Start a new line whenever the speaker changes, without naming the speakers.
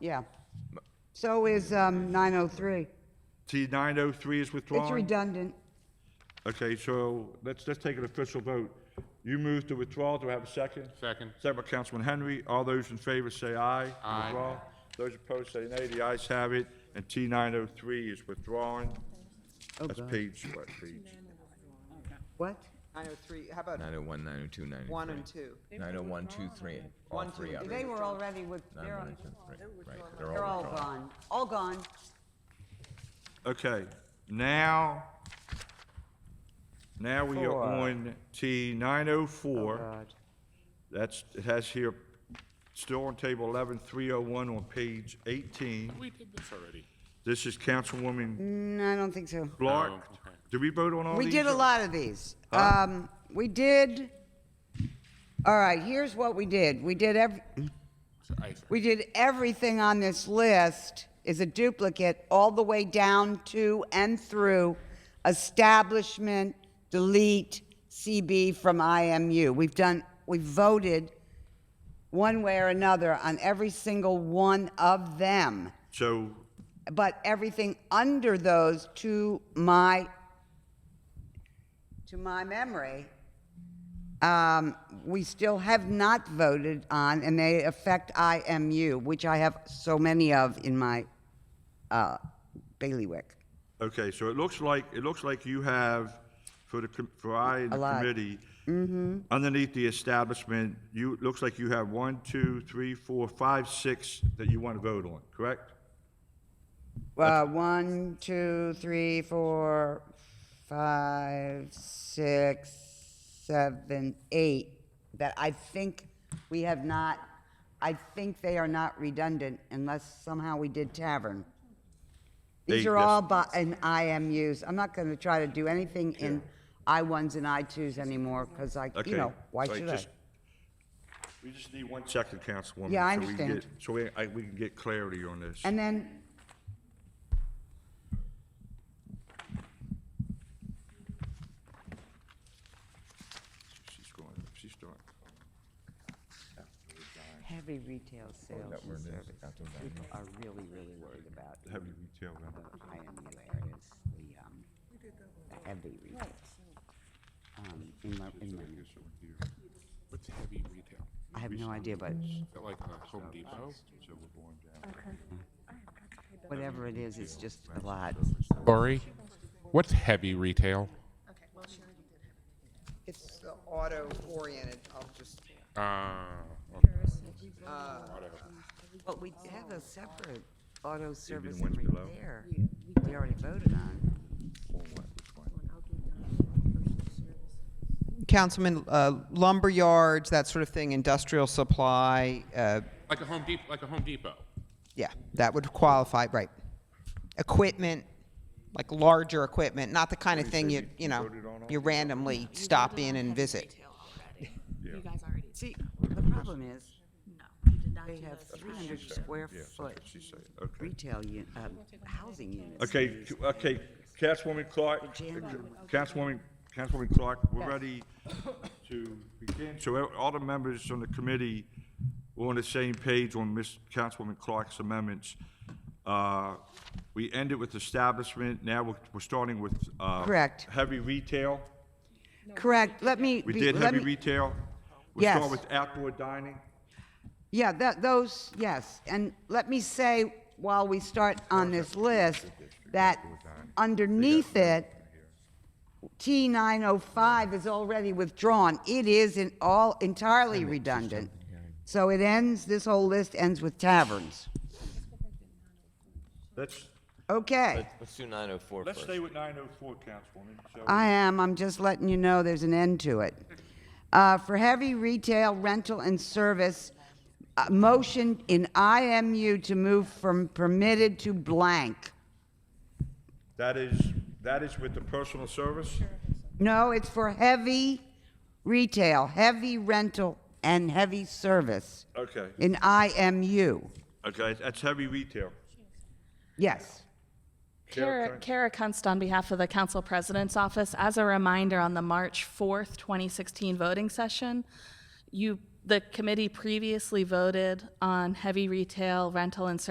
yeah. So is um, 903.
T nine oh three is
It's
withdrawn?
redundant.
Okay, so let's, let's take an official vote. You move to withdrawal, do I have a second?
Second.
Second by Councilman Henry, all those in favor say aye.
Aye.
Withdrawal. Those opposed say nay, the ayes have it, and T nine oh three is withdrawn. That's page, what page?
What?
903, how about
901, 902, 903.
1 and 2?
901, 23, all
One,
oh three
two,
of
They
them.
were already with, they're,
901, 2, 3, right,
oh they're all
withdrawn.
gone, all gone.
Okay, now, now we are
Four.
on T nine oh
Oh,
four.
God.
That's, it has here, still on table eleven, three oh one on page eighteen.
We did this already.
This is Councilwoman
No, Mm, I don't think so.
Blark.
Oh, okay.
Did we vote on all these?
We did a lot of these. Um, we did, all right, here's what we did. We did every,
So I-
we did everything on this list is a duplicate all the way down to and through establishment, delete, CB from IMU. We've done, we voted one way or another on every single one of them.
So,
but everything under those to my to my memory um, we still have not voted on and they affect imu which i have so many of in my uh, bailiwick
okay, so it looks like, it looks like you have, for the, com- for I and
A
the
lot. Mm-hmm.
committee, underneath the establishment, you, it looks like you have one, two, three, four, five, six that you want to vote on, correct?
uh, one two three four five six seven eight that i think we have not i think they are not redundant unless somehow we did tavern these
Eight,
are
yes.
all by, in imus i'm not going to try to do anything in i1s and i2s anymore because i
Okay.
you know why
so I
should i
just- We just need one second, Councilwoman.
Yeah, I
so we can
understand.
get- So we, I, we can get clarity on this.
and then
She's going, she's doing.
heavy retail sales
That where
and
it is,
service
after that.
people are really really worried about
Heavy retail, right?
the IMU areas, the, um, the heavy retail. Um, in my, in my,
What's heavy retail?
I have no idea, but
Is that like a Home Depot?
whatever it is, it's just a lot.
Corey, what's heavy retail?
It's the auto-oriented, I'll just,
Uh,
But we have a separate auto service
ones
and
below?
repair. We already voted on.
Councilman, uh, lumber yards, that sort of thing, industrial supply, uh,
like a Home Depot, like a Home Depot.
yeah, that would qualify, right. Equipment, like larger equipment, not the kind of thing you, you know, you randomly stop in and visit.
detail already. You guys already,
See, the problem is,
no, you did not do
they have
those.
three hundred square foot
Okay.
retail, u- uh, housing units.
Okay, c- okay, Councilwoman Clark, uh, Councilwoman, Councilwoman Clark, we're ready to begin. So e- all the members on the committee were on the same page on Miss Councilwoman Clark's amendments. Uh, We ended with establishment, now we're, we're starting with, uh.
Correct.
Heavy retail.
Correct, let me.
We
be-
did
let
heavy
me-
retail. We
Yes.
start with outdoor dining.
Yeah, that, those, yes. And let me say, while we start on this list, that underneath it, T nine oh five is already withdrawn. It is in all entirely redundant. So it ends, this whole list ends with taverns.
Let's,
Okay,
Let's do 904
let's
first.
stay with nine oh four, Councilwoman. So-
I am, I'm just letting you know there's an end to it. Uh, for heavy retail, rental and service, uh, motion in IMU to move from permitted to blank.
That is, that is with the personal service?
No, it's for heavy retail, heavy rental, and heavy service
Okay,
in IMU.
okay, that's heavy retail.
Yes.
Kara,
Kara,
can-
Kara Kunst on behalf of the Council President's Office. As a reminder, on the March 4th, 2016 voting session, you, the committee previously voted on heavy retail, rental, and service